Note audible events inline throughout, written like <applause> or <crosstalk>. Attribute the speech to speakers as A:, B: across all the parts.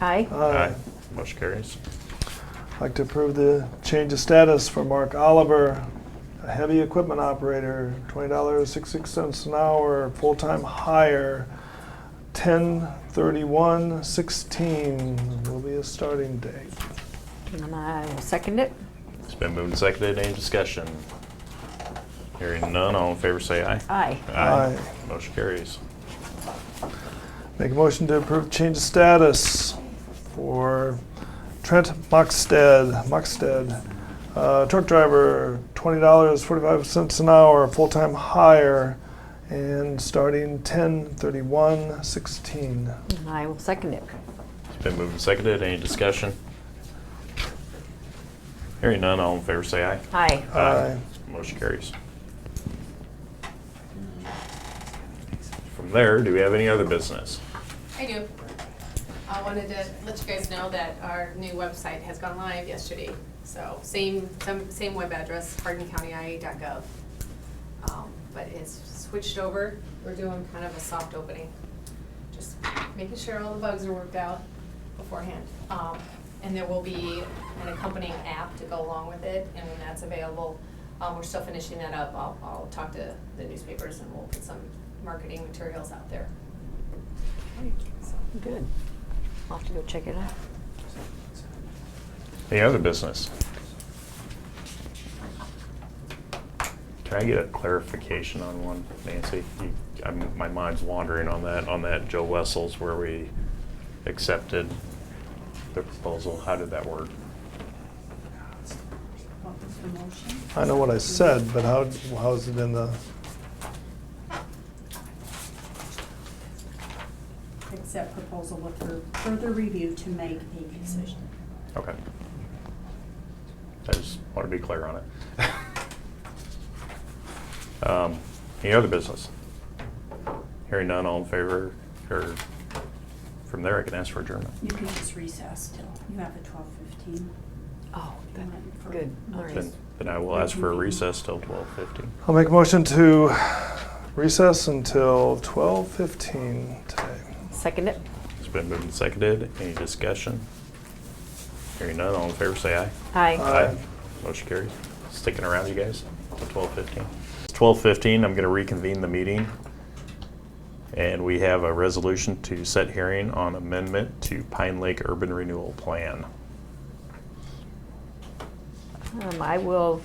A: Aye.
B: Uh,
C: Aye. Motion carries.
B: I'd like to approve the change of status for Mark Oliver, a heavy equipment operator, twenty dollars sixty-six cents an hour, full-time hire, ten thirty-one sixteen will be his starting date.
A: And I will second it.
C: It's been moved and seconded. Any discussion? Hearing none, all in favor say aye.
A: Aye.
B: Aye.
C: Motion carries.
B: Make a motion to approve change of status for Trent Moxted, Moxted, uh, truck driver, twenty dollars forty-five cents an hour, full-time hire, and starting ten thirty-one sixteen.
A: And I will second it.
C: It's been moved and seconded. Any discussion? Hearing none, all in favor say aye.
A: Aye.
B: Aye.
C: Motion carries. From there, do we have any other business?
D: I do. I wanted to let you guys know that our new website has gone live yesterday. So same, some- same web address, hardincountyia.gov. Um, But it's switched over. We're doing kind of a soft opening. Just making sure all the bugs are worked out beforehand. Um, And there will be an accompanying app to go along with it, and when that's available, um, we're still finishing that up. I'll, I'll talk to the newspapers and we'll put some marketing materials out there. So.
A: Good. I'll have to go check it out.
C: Any other business? Can I get a clarification on one, Nancy? You- I'm- My mind's wandering on that, on that Joe Wessels where we accepted the proposal. How did that work?
E: What was the motion?
B: I know what I said, but how, how is it in the,
E: Accept proposal with fur- further review to make a decision.
C: Okay. I just want to be clear on it. <laughs> Um, Any other business? Hearing none, all in favor, or from there, I can ask for adjournment.
E: You can just recess till, you have a twelve fifteen.
A: Oh,
E: that-
A: good. All right.
C: Then then I will ask for a recess till 12:15.
B: I'll make a motion to recess until twelve fifteen today.
A: Second it.
C: It's been moved and seconded. Any discussion? Hearing none, all in favor, say aye.
A: Aye.
B: Aye.
C: Motion carries. Sticking around, you guys, till twelve fifteen. It's twelve fifteen, I'm gonna reconvene the meeting. And we have a resolution to set hearing on amendment to Pine Lake Urban Renewal Plan.
A: Um, I will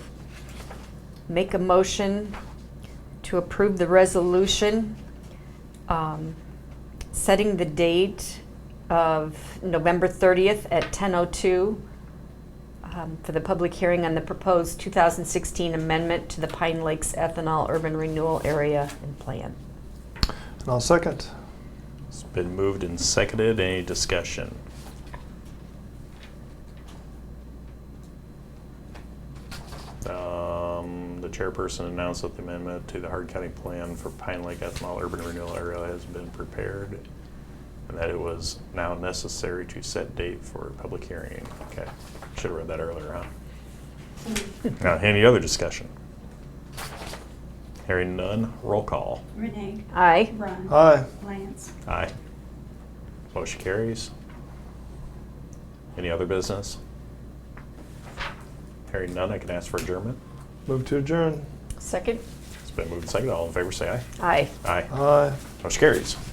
A: make a motion to approve the resolution, um, setting the date of November 30th at 10:02 um, for the public hearing on the proposed 2016 amendment to the Pine Lakes Ethanol Urban Renewal Area and Plan.
B: And I'll second.
C: It's been moved and seconded. Any discussion? Um, The chairperson announced that the amendment to the Hard County Plan for Pine Lake Ethanol Urban Renewal Area has been prepared and that it was now necessary to set date for a public hearing. Okay, should have read that earlier, huh? Now, Any other discussion? Hearing none, roll call.
E: Renee?
A: Aye.
E: Ron?
B: Aye.
E: Lance?
C: Aye. Motion carries. Any other business? Hearing none, I can ask for adjournment.
B: Move to adjourn.
A: Second?
C: It's been moved and seconded. All in favor, say aye.
A: Aye.
C: Aye.
B: Aye.
C: Motion carries.